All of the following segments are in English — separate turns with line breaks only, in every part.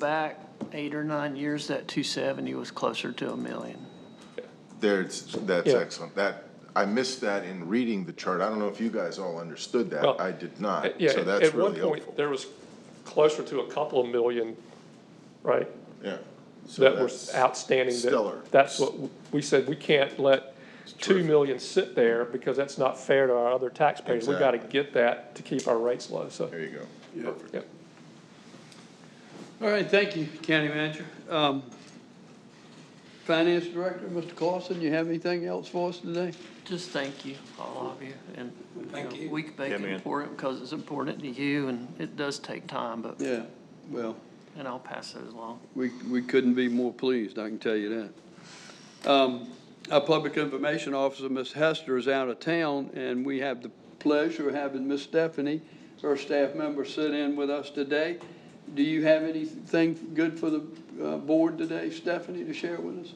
Back eight or nine years, that 270 was closer to a million.
There's, that's
Yeah.
excellent. That, I missed that in reading the chart. I don't know if you guys all understood
Well,
that. I did
Uh,
not.
Yeah,
So
at-
that's
At one
really
point,
helpful.
there was closer to a couple of million, right,
Yeah. So
that were
that's-
outstanding. that-
stellar.
That's what, w- we said, we can't let two million sit there because that's not fair to our other taxpayers. We gotta
Exactly.
get that to keep our rates low, so,
There you go. Perfect.
yep.
All right, thank you, County Manager. Um, Finance Director, Mr. Clausen, you have anything else for us today?
Just thank you, all of you, and. you
Thank
know,
you.
We make it important because it's important to you, and it does take time, but,
Yeah, well,
and I'll pass those along.
we, we couldn't be more pleased, I can tell you that. Um, Our Public Information Officer, Ms. Hester, is out of town, and we have the pleasure of having Ms. Stephanie, her staff member, sit in with us today. Do you have anything good for the uh, board today, Stephanie, to share with us?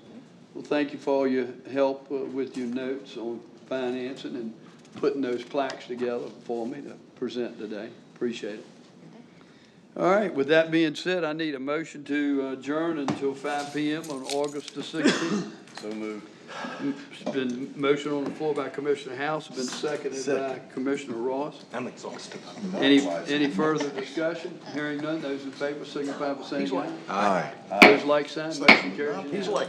Well, thank you for all your help uh, with your notes on financing and putting those plaques together for me to present today. Appreciate it. All right, with that being said, I need a motion to adjourn until five PM on August the sixteenth.
So moved.
It's been motion on the floor by Commissioner House, been seconded by Commissioner Ross.
I'm exhausted.
Any, any further discussion? Hearing none, those in favor signify by saying aye.
Aye.
Those like sign, motion carries.
He's like,